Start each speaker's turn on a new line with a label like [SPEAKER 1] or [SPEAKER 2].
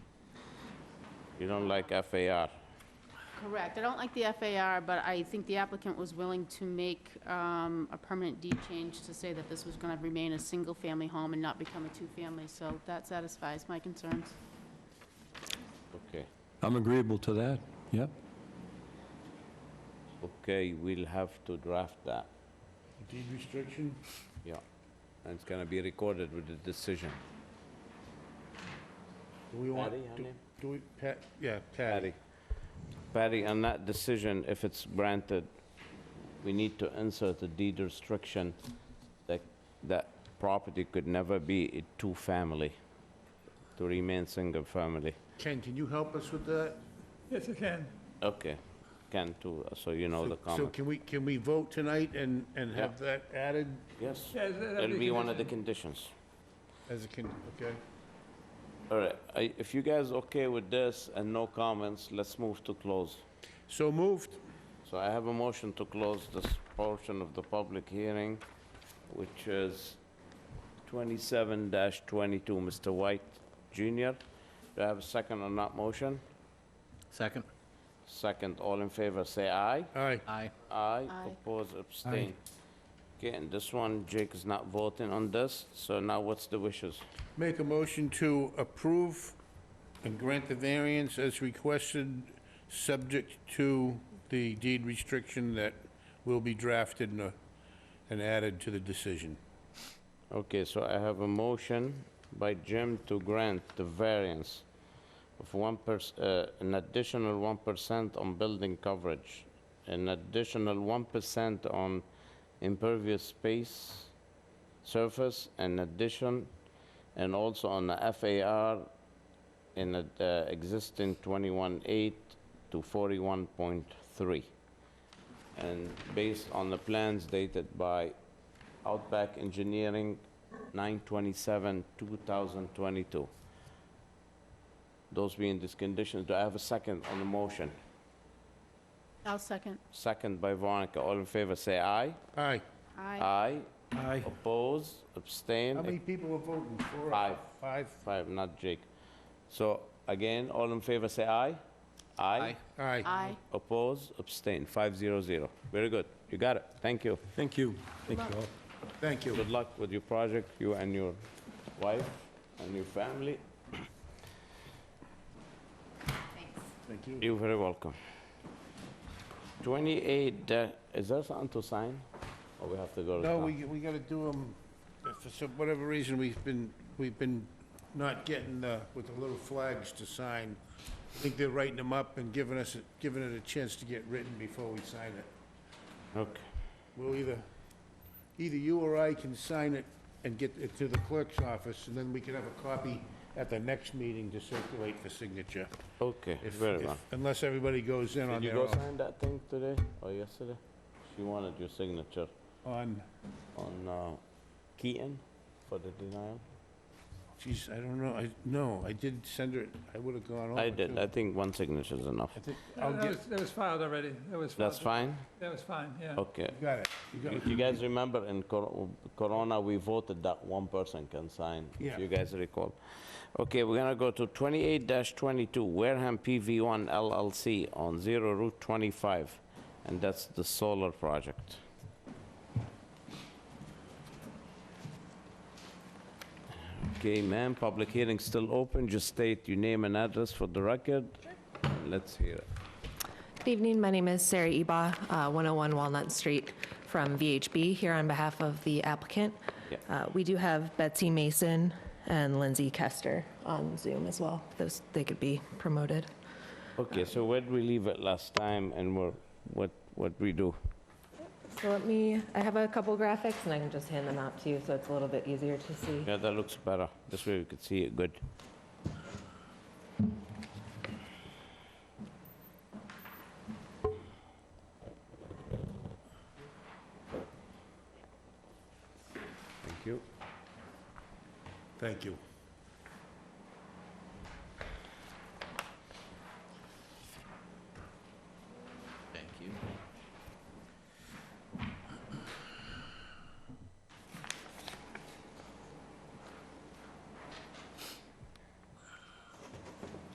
[SPEAKER 1] You don't like FAR.
[SPEAKER 2] Correct. I don't like the FAR, but I think the applicant was willing to make um, a permanent deed change to say that this was going to remain a single-family home and not become a two-family, so that satisfies my concerns.
[SPEAKER 1] Okay.
[SPEAKER 3] I'm agreeable to that, yep.
[SPEAKER 1] Okay, we'll have to draft that.
[SPEAKER 4] Deed restriction?
[SPEAKER 1] Yeah. And it's gonna be recorded with the decision.
[SPEAKER 4] Do we want?
[SPEAKER 1] Patty, her
[SPEAKER 4] do-
[SPEAKER 1] name?
[SPEAKER 4] Do we, Pat, yeah,
[SPEAKER 1] Patty.
[SPEAKER 4] Patty.
[SPEAKER 1] Patty, on that decision, if it's granted, we need to insert a deed restriction that that property could never be a two-family, to remain single-family.
[SPEAKER 4] Ken, can you help us with that?
[SPEAKER 5] Yes, I can.
[SPEAKER 1] Okay, can too, so you know Oh, the
[SPEAKER 4] So- So
[SPEAKER 1] comment.
[SPEAKER 4] can we, can we vote tonight and, and have that added
[SPEAKER 1] Yes,
[SPEAKER 5] Yes, that'll
[SPEAKER 1] it'll
[SPEAKER 5] be
[SPEAKER 1] be one of the conditions.
[SPEAKER 4] as a can, okay?
[SPEAKER 1] All right, I- if you guys okay with this and no comments, let's move to close.
[SPEAKER 4] So moved.
[SPEAKER 1] So I have a motion to close this portion of the public hearing, which is 27-22, Mr. White Jr. Do I have a second on that motion?
[SPEAKER 6] Second?
[SPEAKER 1] Second, all in favor, say aye.
[SPEAKER 4] Aye.
[SPEAKER 6] Aye.
[SPEAKER 1] Aye,
[SPEAKER 2] Aye.
[SPEAKER 1] oppose, abstain. Okay, and this one, Jake is not voting on this, so now what's the wishes?
[SPEAKER 4] Make a motion to approve and grant the variance as requested, subject to the deed restriction that will be drafted and, uh, and added to the decision.
[SPEAKER 1] Okay, so I have a motion by Jim to grant the variance of one uh an additional 1% on building coverage, an additional 1% on impervious space surface, and addition, and also on the FAR in the uh, existing 21.8 to 41.3. And based on the plans dated by Outback Engineering, 9/27/2022. Those being these conditions, do I have a second on the motion?
[SPEAKER 2] I'll second.
[SPEAKER 1] Second by Veronica, all in favor, say aye.
[SPEAKER 4] Aye.
[SPEAKER 2] Aye.
[SPEAKER 1] Aye.
[SPEAKER 5] Aye.
[SPEAKER 1] Oppose, abstain.
[SPEAKER 4] How many people are voting? Four? or
[SPEAKER 1] Five.
[SPEAKER 4] Five?
[SPEAKER 1] Five, not Jake. So again, all in favor, say aye. Aye.
[SPEAKER 6] Aye.
[SPEAKER 4] Aye.
[SPEAKER 2] Aye.
[SPEAKER 1] Oppose, abstain, 500. Very good, you got it, thank you.
[SPEAKER 3] Thank you. Thank you all.
[SPEAKER 4] Thank you.
[SPEAKER 1] Good luck with your project, you and your wife and your family.
[SPEAKER 4] Thank you.
[SPEAKER 1] You're very welcome. 28, uh, is there something to sign? Or we have to go to
[SPEAKER 4] No,
[SPEAKER 1] town?
[SPEAKER 4] we, we gotta do them, for some, whatever reason, we've been, we've been not getting the, with the little flags to sign. I think they're writing them up and giving us, a- giving it a chance to get written before we sign it.
[SPEAKER 1] Okay,
[SPEAKER 4] We'll either, either you or I can sign it and get it to the clerk's office, and then we can have a copy at the next meeting to circulate for signature.
[SPEAKER 1] okay,
[SPEAKER 4] If-
[SPEAKER 1] very
[SPEAKER 4] if-
[SPEAKER 1] well.
[SPEAKER 4] Unless everybody goes in on
[SPEAKER 1] Did you
[SPEAKER 4] their
[SPEAKER 1] go
[SPEAKER 4] own,
[SPEAKER 1] sign that thing today or yesterday? She wanted your signature
[SPEAKER 4] on,
[SPEAKER 1] on uh, Keaton for the denial?
[SPEAKER 4] geez, I don't know, I, no, I did send her, I would've gone over.
[SPEAKER 1] I did,
[SPEAKER 4] too.
[SPEAKER 1] I think one signature is enough.
[SPEAKER 4] Oh, I think, I'll
[SPEAKER 5] That
[SPEAKER 4] get,
[SPEAKER 5] was, that was filed already. That was filed.
[SPEAKER 1] That's fine?
[SPEAKER 5] That was fine, yeah.
[SPEAKER 1] Okay.
[SPEAKER 4] you got it. You got
[SPEAKER 1] You
[SPEAKER 4] it.
[SPEAKER 1] you guys remember in cor- Corona, we voted that one person can sign, if
[SPEAKER 4] Yeah.
[SPEAKER 1] you guys recall. Okay, we're gonna go to 28-22 Wareham PV1 LLC on 0 Route 25, and that's the solar project. Okay, ma'am, public hearing still open, just state your name and address for the record. Let's hear it.
[SPEAKER 7] Good evening, my name is Sarah Eba, uh, 101 Walnut Street from VHB, here on behalf of the applicant.
[SPEAKER 1] Yeah.
[SPEAKER 7] Uh, We do have Betsy Mason and Lindsay Kester on Zoom as well, those, they could be promoted.
[SPEAKER 1] Okay, so where did we leave it last time, and we're- what, what we do?
[SPEAKER 7] So let me, I have a couple graphics and I can just hand them out to you, so it's a little bit easier to see.
[SPEAKER 1] Yeah, that looks better. This way we could see it good. Thank you.
[SPEAKER 4] Thank you.